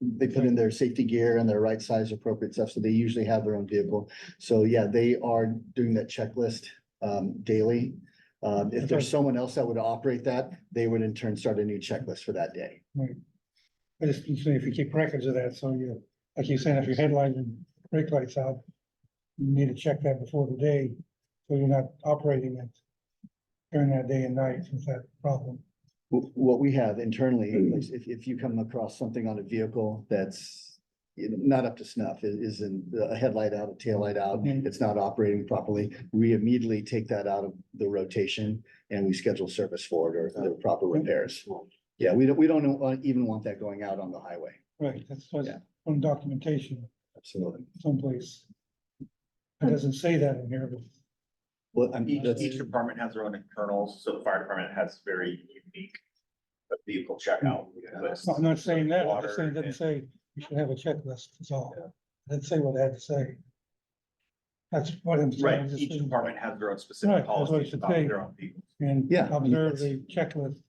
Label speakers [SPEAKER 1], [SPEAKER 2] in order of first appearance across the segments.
[SPEAKER 1] they put in their safety gear and their right size appropriate stuff, so they usually have their own vehicle. So yeah, they are doing that checklist um daily. Um, if
[SPEAKER 2] Okay.
[SPEAKER 1] there's someone else that would operate that, they would in turn start a new checklist for that day.
[SPEAKER 2] I just, you say if you keep records of that, so you, like you said, if your headlight and brake lights out, you need to check that before the day, so you're not operating it during that day and night with that problem.
[SPEAKER 1] Wh- What we have internally, is if, if you come across something on a vehicle that's you know, not up to snuff, i- isn't a headlight out, a taillight out,
[SPEAKER 2] Mhm.
[SPEAKER 1] it's not operating properly, we immediately take that out of the rotation and we schedule service for it or the proper repairs. Yeah, we don't, we don't uh, even want that going out on the highway.
[SPEAKER 2] Right, that's what's
[SPEAKER 1] Yeah.
[SPEAKER 2] on documentation
[SPEAKER 1] Absolutely.
[SPEAKER 2] someplace. It doesn't say that in here, but
[SPEAKER 1] Well, I'm,
[SPEAKER 3] Each,
[SPEAKER 1] that's,
[SPEAKER 3] each department has their own internals, so the fire department has very unique uh, vehicle checkout. lists.
[SPEAKER 2] I'm not saying that, I'm just
[SPEAKER 3] Water
[SPEAKER 2] saying it doesn't
[SPEAKER 3] and-
[SPEAKER 2] say you should have a checklist, that's all.
[SPEAKER 3] Yeah.
[SPEAKER 2] It Didn't say what it had to say. That's what I'm saying.
[SPEAKER 3] Right,
[SPEAKER 2] just
[SPEAKER 3] each
[SPEAKER 2] didn't-
[SPEAKER 3] department has their own
[SPEAKER 2] Right,
[SPEAKER 3] specific
[SPEAKER 2] that's what I
[SPEAKER 3] policies
[SPEAKER 2] should
[SPEAKER 3] about
[SPEAKER 2] say.
[SPEAKER 3] their own vehicles.
[SPEAKER 2] And
[SPEAKER 1] Yeah, I mean,
[SPEAKER 2] observe
[SPEAKER 1] that's-
[SPEAKER 2] the checklist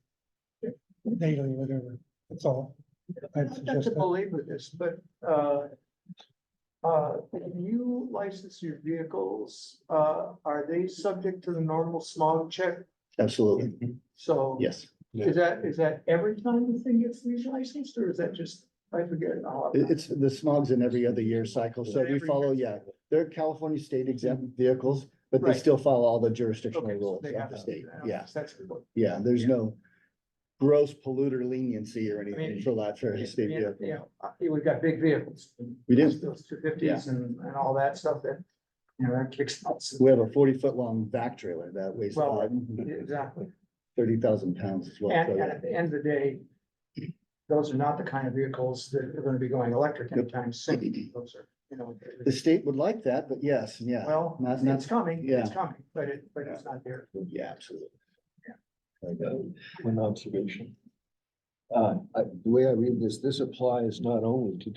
[SPEAKER 2] daily, whatever, that's all. I'd
[SPEAKER 4] Not
[SPEAKER 2] suggest
[SPEAKER 4] to
[SPEAKER 2] that.
[SPEAKER 4] belabor this, but, uh, uh, when you license your vehicles, uh, are they subject to the normal smog check?
[SPEAKER 1] absolutely.
[SPEAKER 4] So.
[SPEAKER 1] Yes.
[SPEAKER 4] Is that, is that every time the thing gets relicensed, or is that just, I forget now.
[SPEAKER 1] It- It's, the smog's in every other year cycle, so we
[SPEAKER 4] Every
[SPEAKER 1] follow,
[SPEAKER 4] year. Mm-hmm.
[SPEAKER 1] yeah, they're California state exempt vehicles, but they
[SPEAKER 4] Right.
[SPEAKER 1] still follow all the
[SPEAKER 4] Okay,
[SPEAKER 1] jurisdictional
[SPEAKER 4] so
[SPEAKER 1] rules
[SPEAKER 4] they
[SPEAKER 1] of
[SPEAKER 4] have
[SPEAKER 1] the
[SPEAKER 4] to-
[SPEAKER 1] state,
[SPEAKER 4] I don't
[SPEAKER 1] yeah.
[SPEAKER 4] guess That's. what-
[SPEAKER 1] Yeah, there's
[SPEAKER 4] Yeah.
[SPEAKER 1] no gross polluter leniency or anything
[SPEAKER 4] mean,
[SPEAKER 1] for that for a state
[SPEAKER 4] Yeah,
[SPEAKER 1] vehicle.
[SPEAKER 4] yeah, uh, we've got big vehicles.
[SPEAKER 1] We do.
[SPEAKER 4] Those two fifties and, and all that stuff that, you know, that kicks. nuts.
[SPEAKER 1] We have a forty foot long back trailer that weighs
[SPEAKER 4] Well,
[SPEAKER 1] thirty
[SPEAKER 4] Exactly.
[SPEAKER 1] thousand pounds as well.
[SPEAKER 4] And,
[SPEAKER 1] so
[SPEAKER 4] and
[SPEAKER 1] yeah.
[SPEAKER 4] at the end of the day, those are not the kind of vehicles that are gonna be going electric anytime soon. Those are, you know.
[SPEAKER 1] The state would like that, but yes, yeah,
[SPEAKER 4] Well,
[SPEAKER 1] not- not-
[SPEAKER 4] it's coming, it's
[SPEAKER 1] yeah.
[SPEAKER 4] coming, but it, but it's not there.
[SPEAKER 1] yeah, absolutely.
[SPEAKER 5] One observation. Uh, I- the way I read this, this applies not only to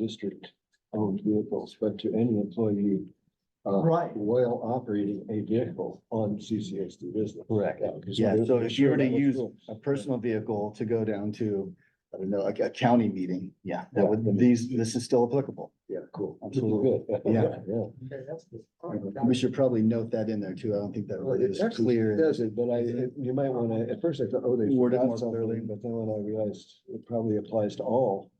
[SPEAKER 5] district-owned vehicles, but to any employee. uh,
[SPEAKER 4] Right.
[SPEAKER 5] While operating a vehicle on CCSD business. Correct.
[SPEAKER 1] Yeah, so if you were to use a personal vehicle to go down to, I don't know, like a county meeting, yeah, that would, these, this is still applicable. Yeah, cool. Absolutely.
[SPEAKER 5] Good.
[SPEAKER 1] Yeah.
[SPEAKER 5] Yeah.
[SPEAKER 4] Okay, that's good. All right,
[SPEAKER 1] We should probably note that in there too. I don't think that
[SPEAKER 5] Well,
[SPEAKER 1] really
[SPEAKER 5] it
[SPEAKER 1] is
[SPEAKER 5] actually
[SPEAKER 1] clear.
[SPEAKER 5] does it, but I, it- you might want to, at first I thought, oh, they.
[SPEAKER 1] Word it
[SPEAKER 5] forgot
[SPEAKER 1] more
[SPEAKER 5] something,
[SPEAKER 1] clearly.
[SPEAKER 5] But then when I realized it probably applies to all.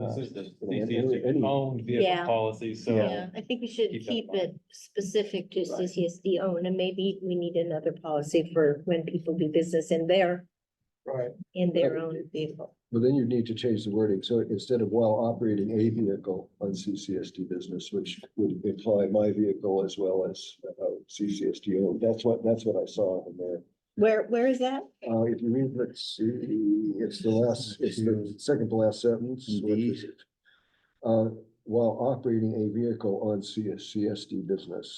[SPEAKER 5] uh,
[SPEAKER 6] This is the
[SPEAKER 5] any- any-
[SPEAKER 6] CCSD owned
[SPEAKER 7] Yeah.
[SPEAKER 6] vehicle policy, so.
[SPEAKER 7] Yeah, I think we should
[SPEAKER 6] keep that
[SPEAKER 7] keep
[SPEAKER 6] in mind.
[SPEAKER 7] it specific to
[SPEAKER 6] Right.
[SPEAKER 7] CCSD owned, and maybe we need another policy for when people do business in their,
[SPEAKER 4] Right.
[SPEAKER 7] in their
[SPEAKER 5] Right.
[SPEAKER 7] own vehicle.
[SPEAKER 5] But then you need to change the wording. So instead of while operating a vehicle on CCSD business, which would imply my vehicle as well as uh, CCSD owned, that's what, that's what I saw in there.
[SPEAKER 7] Where, where is that?
[SPEAKER 5] Uh, if you read, let's see, it's the last, it's the second to last sentence. which is, Uh, while operating a vehicle on CSD business.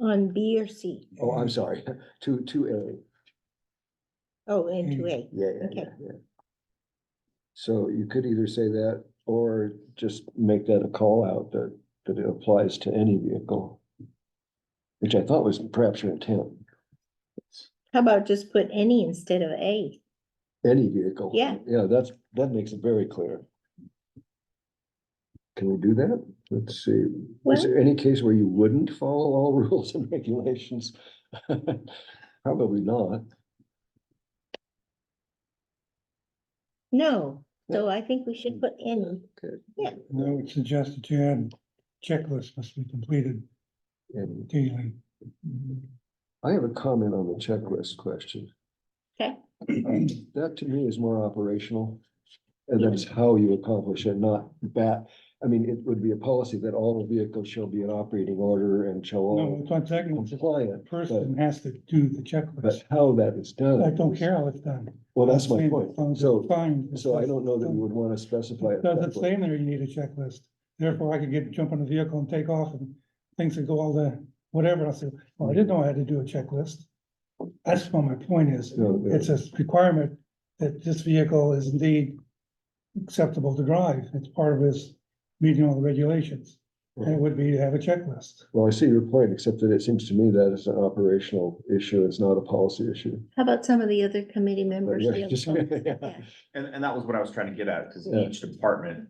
[SPEAKER 7] On B or C?
[SPEAKER 5] Oh, I'm sorry, two, two A.
[SPEAKER 7] Oh, and
[SPEAKER 6] Mm.
[SPEAKER 7] two A.
[SPEAKER 5] Yeah, yeah,
[SPEAKER 7] Okay.
[SPEAKER 5] yeah, yeah. So you could either say that or just make that a call out that, that it applies to any vehicle. Which I thought was perhaps your intent,
[SPEAKER 7] How about just put any instead of A?
[SPEAKER 5] any vehicle.
[SPEAKER 7] Yeah.
[SPEAKER 5] Yeah, that's, that makes it very clear. Can we do that? Let's see,
[SPEAKER 7] Well-
[SPEAKER 5] is there any case where you wouldn't follow all rules and regulations? Probably not.
[SPEAKER 7] No, so I think we
[SPEAKER 6] Mm.
[SPEAKER 7] should put any.
[SPEAKER 5] Okay.
[SPEAKER 2] And I would suggest that you add checklist must be completed
[SPEAKER 5] And
[SPEAKER 2] daily.
[SPEAKER 5] I have a comment on the checklist question.
[SPEAKER 7] Okay.
[SPEAKER 5] That to me is more operational. And that's how you accomplish it, not bat. I mean, it would be a policy that all vehicles shall be in operating order and shall
[SPEAKER 2] No,
[SPEAKER 5] all
[SPEAKER 2] it's not technical, the
[SPEAKER 5] compliant. But,
[SPEAKER 2] person has to do the
[SPEAKER 5] but
[SPEAKER 2] checklist.
[SPEAKER 5] how that is done.
[SPEAKER 2] I don't care how it's done.
[SPEAKER 5] Well, that's my
[SPEAKER 2] Saying
[SPEAKER 5] point.
[SPEAKER 2] as long as it's
[SPEAKER 5] So,
[SPEAKER 2] fine, it's
[SPEAKER 5] so I
[SPEAKER 2] just-
[SPEAKER 5] don't know that we would want to specify. it that
[SPEAKER 2] Doesn't
[SPEAKER 5] way.
[SPEAKER 2] say in there you need a checklist. Therefore, I could get, jump in the vehicle and take off and things that go all the, whatever. I said, well, I didn't know I had to do a checklist. That's what my point is.
[SPEAKER 5] No, no.
[SPEAKER 2] It's a requirement that this vehicle is indeed acceptable to drive. It's part of his meeting all the regulations. And it would be to have a checklist.
[SPEAKER 5] Well, I see your point, except that it seems to me that is an operational issue. It's not a policy issue.
[SPEAKER 7] How about some of the other committee
[SPEAKER 5] But
[SPEAKER 7] members?
[SPEAKER 5] yeah,
[SPEAKER 7] feel
[SPEAKER 5] just-
[SPEAKER 7] comfortable?
[SPEAKER 5] yeah.
[SPEAKER 7] Yeah.
[SPEAKER 3] And, and that was what I was trying to get at, because
[SPEAKER 5] Yeah.
[SPEAKER 3] each department